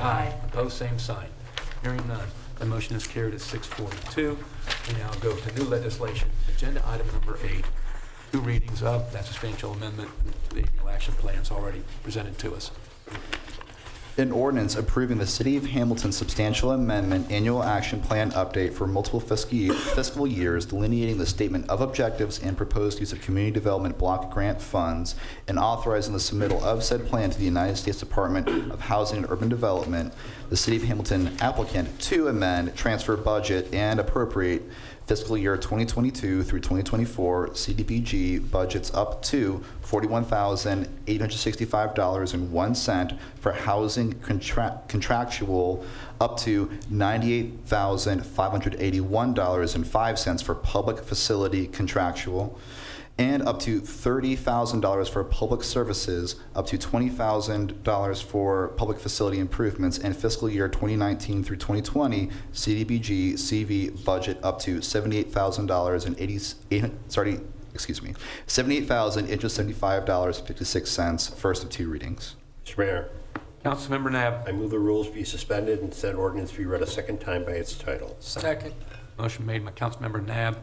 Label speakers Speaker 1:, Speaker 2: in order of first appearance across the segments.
Speaker 1: Aye. Opposed, same sign. Hearing none, the motion is carried at 6:42. We now go to new legislation, agenda item number eight. Two readings up, that's a substantial amendment, to the annual action plan's already presented to us.
Speaker 2: An ordinance approving the City of Hamilton Substantial Amendment Annual Action Plan Update for multiple fiscal ye- fiscal years delineating the statement of objectives and proposed use of community development block grant funds and authorizing the submittal of said plan to the United States Department of Housing and Urban Development, the City of Hamilton applicant to amend, transfer budget, and appropriate fiscal year 2022 through 2024 CDBG budgets up to $41,865.01 for housing contra- contractual, up to $98,581.05 for public facility contractual, and up to $30,000 for public services, up to $20,000 for public facility improvements, and fiscal year 2019 through 2020 CDBG CV budget up to $78,000 and 80, eight- sorry, excuse me, $78,875.56, first of two readings.
Speaker 3: Mr. Mayor,
Speaker 1: Councilmember Nab.
Speaker 3: I move the rules be suspended and said ordinance be read a second time by its title.
Speaker 1: Second. Motion made by Councilmember Nab,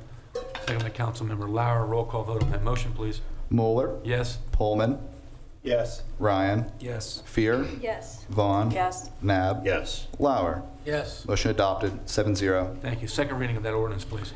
Speaker 1: second by Councilmember Lauer. Roll call vote on that motion, please.
Speaker 2: Moeller,
Speaker 1: Yes?
Speaker 2: Pullman,
Speaker 3: Yes.
Speaker 2: Ryan,
Speaker 1: Yes.
Speaker 2: Fear,
Speaker 4: Yes.
Speaker 2: Vaughn,
Speaker 4: Yes.
Speaker 2: Nab,
Speaker 3: Yes.
Speaker 2: Lauer.
Speaker 1: Yes.
Speaker 2: Motion adopted, seven zero.
Speaker 1: Thank you. Second reading of that ordinance, please.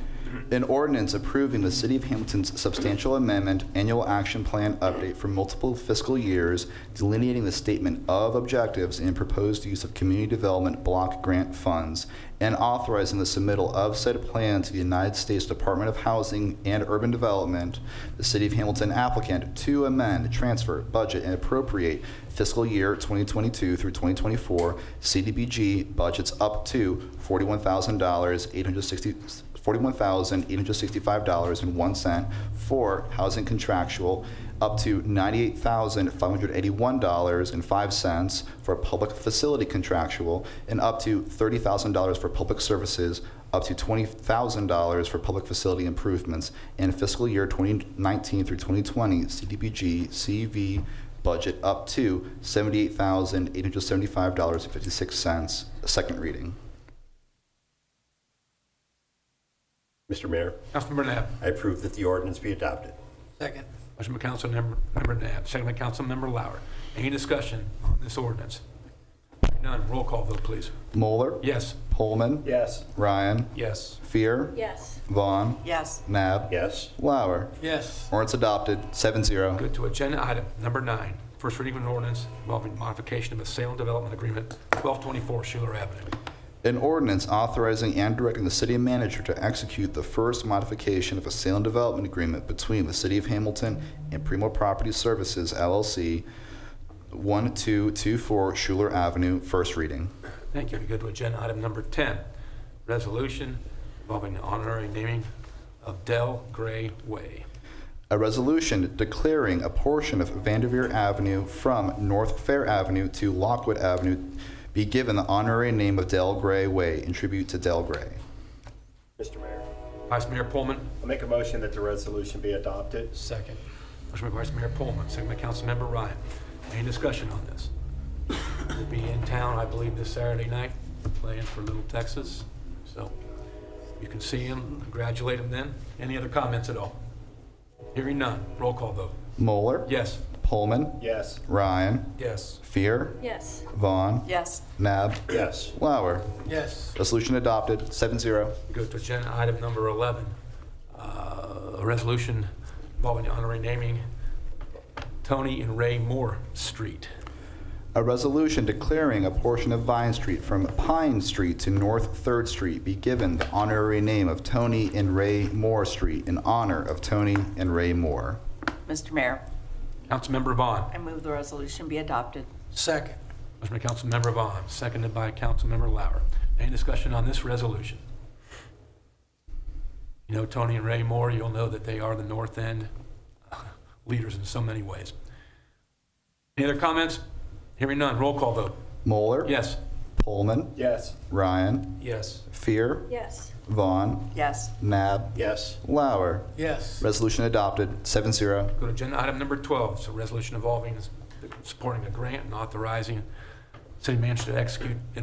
Speaker 2: An ordinance approving the City of Hamilton's substantial amendment annual action plan update for multiple fiscal years, delineating the statement of objectives and proposed use of community development block grant funds, and authorizing the submittal of said plan to the United States Department of Housing and Urban Development, the City of Hamilton applicant to amend, transfer, budget, and appropriate fiscal year 2022 through 2024 CDBG budgets up to $41,000, 860, $41,865.01 for housing contractual, up to $98,581.05 for public facility contractual, and up to $30,000 for public services, up to $20,000 for public facility improvements, and fiscal year 2019 through 2020 CDBG CV budget up to $78,875.56. Second reading.
Speaker 3: Mr. Mayor,
Speaker 1: Councilmember Nab.
Speaker 3: I approve that the ordinance be adopted.
Speaker 1: Second. Motion by Councilmember Nab, second by Councilmember Lauer. Any discussion on this ordinance? None. Roll call vote, please.
Speaker 2: Moeller?
Speaker 1: Yes.
Speaker 2: Pullman?
Speaker 3: Yes.
Speaker 2: Ryan?
Speaker 1: Yes.
Speaker 2: Fear?
Speaker 4: Yes.
Speaker 2: Vaughn?
Speaker 4: Yes.
Speaker 2: Nab?
Speaker 3: Yes.
Speaker 2: Lauer?
Speaker 1: Yes.
Speaker 2: Ordinance adopted, seven zero.
Speaker 1: Good to agenda item number nine, first reading of an ordinance involving modification of a sale and development agreement, 1224 Schuler Avenue.
Speaker 2: An ordinance authorizing and directing the city manager to execute the first modification of a sale and development agreement between the City of Hamilton and Primo Property Services LLC, 1224 Schuler Avenue, first reading.
Speaker 1: Thank you. We go to agenda item number 10, resolution involving the honorary naming of Dell Gray Way.
Speaker 2: A resolution declaring a portion of Vanderveer Avenue from North Fair Avenue to Lockwood Avenue be given the honorary name of Del Gray Way in tribute to Del Gray.
Speaker 5: Mr. Mayor,
Speaker 1: Vice Mayor Pullman.
Speaker 5: I make a motion that the resolution be adopted.
Speaker 1: Second. Motion by Vice Mayor Pullman, second by Councilmember Ryan. Any discussion on this? We'll be in town, I believe, this Saturday night, playing for Little Texas. So you can see him, congratulate him then. Any other comments at all? Hearing none, roll call vote.
Speaker 2: Moeller?
Speaker 1: Yes.
Speaker 2: Pullman?
Speaker 5: Yes.
Speaker 2: Ryan?
Speaker 1: Yes.
Speaker 2: Fear?
Speaker 4: Yes.
Speaker 2: Vaughn?
Speaker 4: Yes.
Speaker 2: Nab?
Speaker 3: Yes.
Speaker 2: Lauer?
Speaker 1: Yes.
Speaker 2: Resolution adopted, seven zero.
Speaker 1: Go to agenda item number 11, uh, a resolution involving the honorary naming Tony and Ray Moore Street.
Speaker 2: A resolution declaring a portion of Vine Street from Pine Street to North Third Street be given the honorary name of Tony and Ray Moore Street in honor of Tony and Ray Moore.
Speaker 6: Mr. Mayor,
Speaker 1: Councilmember Vaughn.
Speaker 6: I move the resolution be adopted.
Speaker 1: Second. Motion by Councilmember Vaughn, seconded by Councilmember Lauer. Any discussion on this resolution? You know Tony and Ray Moore, you'll know that they are the North End leaders in so many ways. Any other comments? Hearing none, roll call vote.
Speaker 2: Moeller?
Speaker 1: Yes.
Speaker 2: Pullman?
Speaker 5: Yes.
Speaker 2: Ryan?
Speaker 1: Yes.
Speaker 2: Fear?
Speaker 4: Yes.
Speaker 2: Vaughn?
Speaker 6: Yes.
Speaker 2: Nab?
Speaker 3: Yes.
Speaker 2: Lauer?
Speaker 1: Yes.
Speaker 2: Resolution adopted, seven zero.
Speaker 1: Go to agenda item number 12, so resolution involving supporting a grant and authorizing city manager to execute in